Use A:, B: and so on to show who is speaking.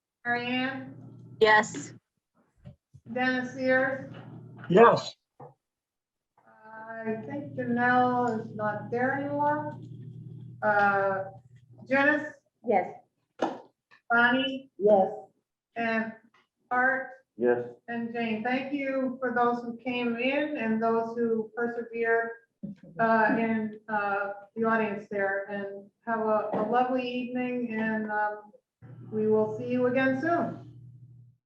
A: Marianne,
B: Yes.
A: Dennis Sears.
C: Yes,
A: I think Janelle is not there anymore. Uh, Janice,
B: Yes.
A: Bonnie,
B: Yes.
A: and Art
D: Yes.
A: and Jane. Thank you for those who came in and those who persevered uh, in uh, the audience there. And have a a lovely evening, and um, we will see you again soon.